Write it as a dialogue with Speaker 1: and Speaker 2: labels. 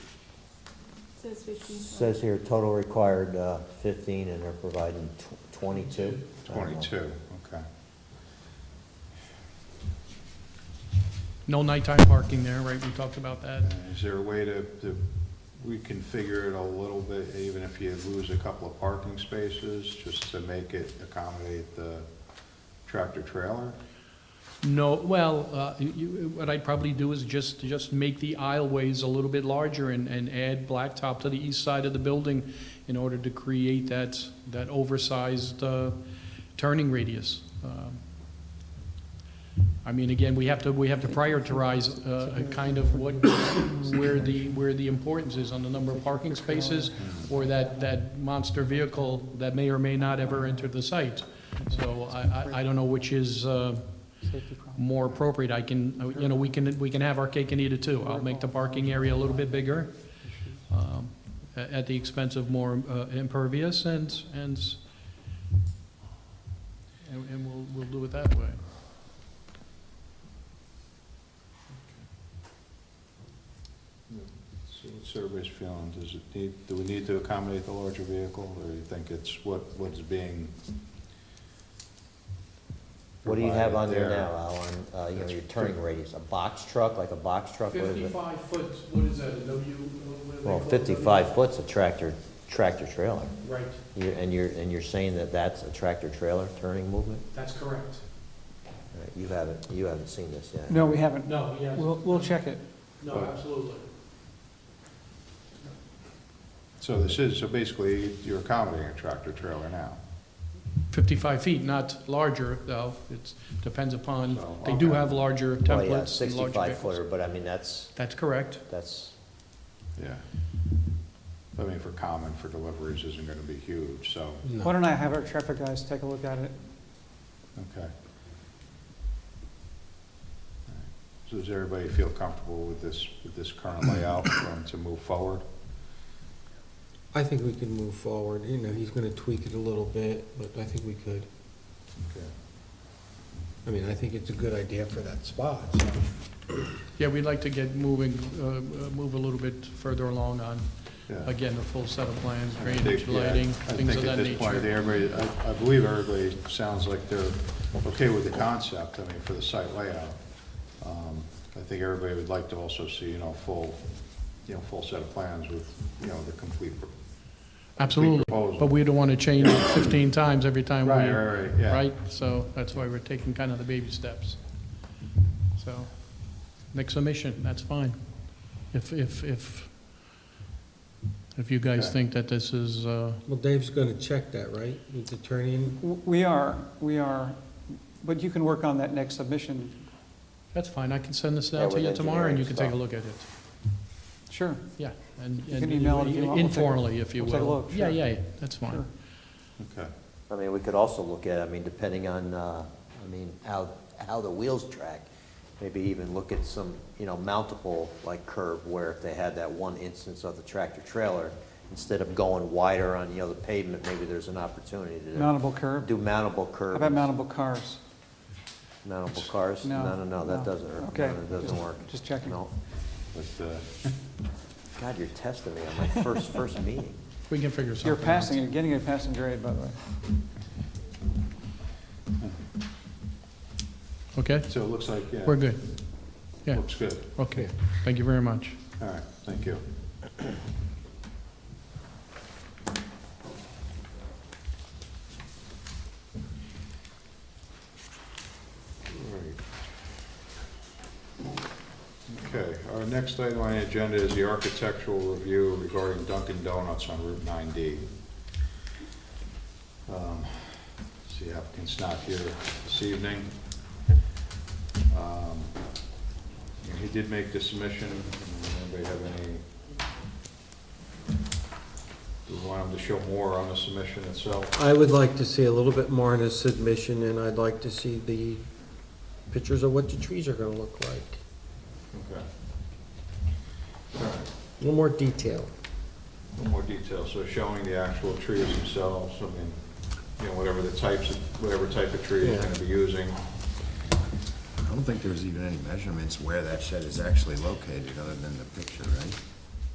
Speaker 1: Says fifteen.
Speaker 2: Says here, total required uh, fifteen, and they're providing tw- twenty-two. I don't know.
Speaker 3: Twenty-two, okay.
Speaker 4: No nighttime parking there, right? We talked about that.
Speaker 3: Uh, Is there a way to, to reconfigure it a little bit, even if you lose a couple of parking spaces, just to make it accommodate the tractor trailer?
Speaker 4: No, well, uh, you- you- what I'd probably do is just, just make the aisleways a little bit larger and, and add blacktop to the east side of the building in order to create that, that oversized uh, turning radius. Um, I mean, again, we have to, we have to prioritize uh, a kind of what, where the, where the importance is on the number of parking spaces or that, that monster vehicle that may or may not ever enter the site. So I, I- I don't know which is, uh, more appropriate, I can, uh, you know, we can, we can have our cake and eat it too. I'll make the parking area a little bit bigger, um, a- at the expense of more uh, impervious and, and, and and we'll, we'll do it that way.
Speaker 3: So what's everybody's feeling? Does it need, do we need to accommodate the larger vehicle, or you think it's what, what's being?
Speaker 2: What do you have on there
Speaker 3: provided
Speaker 2: now, Alan, Uh, you know, your turning radius, a box truck, like a box truck, what is it?
Speaker 4: foot, what is that, a W?
Speaker 2: Well, fifty-five foot's a tractor, tractor trailer,
Speaker 4: Right,
Speaker 2: You're- and you're, and you're saying that that's a tractor trailer turning movement?
Speaker 4: that's correct.
Speaker 2: All right, You haven't, you haven't seen this yet.
Speaker 5: No, we haven't.
Speaker 4: No, yes.
Speaker 5: We'll, we'll check it.
Speaker 3: No,
Speaker 4: absolutely.
Speaker 3: So this is, so basically, you're accommodating a tractor trailer now.
Speaker 4: 55 feet, not larger, though. It depends upon,
Speaker 3: So,
Speaker 4: they do
Speaker 3: okay.
Speaker 4: have larger
Speaker 2: Well, yeah,
Speaker 4: templates and larger
Speaker 2: sixty-five
Speaker 4: vehicles.
Speaker 2: footer, but I mean, that's,
Speaker 4: That's correct.
Speaker 2: that's,
Speaker 3: Yeah. I mean, for common, for deliveries isn't gonna be huge, so,
Speaker 5: Why don't I have our traffic guys take a look at it?
Speaker 3: okay. So does everybody feel comfortable with this, with this current layout um, to move forward?
Speaker 6: I think we can move forward, you know, he's gonna tweak it a little bit, but I think we could.
Speaker 3: Okay.
Speaker 6: I mean, I think it's a good idea for that spot, so.
Speaker 4: Yeah, we'd like to get moving, uh, uh, move a little bit further along on,
Speaker 3: Yeah.
Speaker 4: again, the full set of plans,
Speaker 3: I think,
Speaker 4: drainage,
Speaker 3: yeah,
Speaker 4: lighting, things of that
Speaker 3: I think at this point,
Speaker 4: nature.
Speaker 3: everybody, I- I believe everybody sounds like they're okay with the concept, I mean, for the site layout. Um, I think everybody would like to also see, you know, full, you know, full set of plans with, you know, the complete pro-
Speaker 4: Absolutely,
Speaker 3: proposal.
Speaker 4: but we don't want to change it 15 times every time we...
Speaker 3: Right, right, right, yeah.
Speaker 4: Right, so that's why we're taking kind of the baby steps. So, next submission, that's fine. If, if, if, if you guys
Speaker 3: Okay.
Speaker 4: think that this is, uh,
Speaker 6: Well, Dave's gonna check that, right, with the turn-in?
Speaker 5: W- We are, we are, but you can work on that next submission.
Speaker 4: that's fine, I can send this
Speaker 2: Yeah,
Speaker 4: out to
Speaker 2: with
Speaker 4: you tomorrow and you can take a
Speaker 2: engineering
Speaker 4: look at it.
Speaker 5: Sure.
Speaker 4: Yeah, and,
Speaker 5: You can
Speaker 4: and
Speaker 5: email it if you want. We'll take a-
Speaker 4: informally, if you will.
Speaker 5: we'll take a look,
Speaker 4: Yeah,
Speaker 5: sure.
Speaker 4: yeah, yeah, that's fine.
Speaker 5: Sure.
Speaker 3: Okay.
Speaker 2: I mean, we could also look at, I mean, depending on, uh, I mean, how, how the wheels track, maybe even look at some, you know, mountable, like curb, where if they had that one instance of the tractor trailer, instead of going wider on, you know, the pavement, maybe there's an opportunity to
Speaker 5: Mountable curb.
Speaker 2: do mountable
Speaker 5: How
Speaker 2: curbs.
Speaker 5: about mountable cars?
Speaker 2: Mountable cars?
Speaker 5: No,
Speaker 2: No, no, no, that
Speaker 5: no.
Speaker 2: doesn't, work.
Speaker 5: Okay,
Speaker 2: no, that doesn't
Speaker 5: just-
Speaker 2: work.
Speaker 5: just checking.
Speaker 2: No.
Speaker 3: But, uh,
Speaker 2: God, you're testing me on my first, first meeting.
Speaker 4: We can figure something
Speaker 5: You're
Speaker 4: out.
Speaker 5: passing, you're getting a passing grade, by the way.
Speaker 4: Okay,
Speaker 3: so it looks like, yeah.
Speaker 4: we're good. Yeah,
Speaker 3: Looks good.
Speaker 4: okay, thank you very much.
Speaker 3: All right, thank you. All right. Okay, our next item on the agenda is the architectural review regarding Dunkin' Donuts on Route 9D. Um, See, applicant's not here this evening. Um, yeah, He did make the submission. Does Anybody have any? Do we want him to show more on the submission itself?
Speaker 6: I would like to see a little bit more in his submission, and I'd like to see the pictures of what the trees are gonna look like.
Speaker 3: Okay. All right,
Speaker 6: A little more detail.
Speaker 3: a little more detail. So showing the actual trees themselves, I mean, you know, whatever the types, of whatever type of tree he's
Speaker 6: Yeah.
Speaker 3: gonna be using.
Speaker 7: I don't think there's even any measurements where that shed is actually located, other than the picture, right?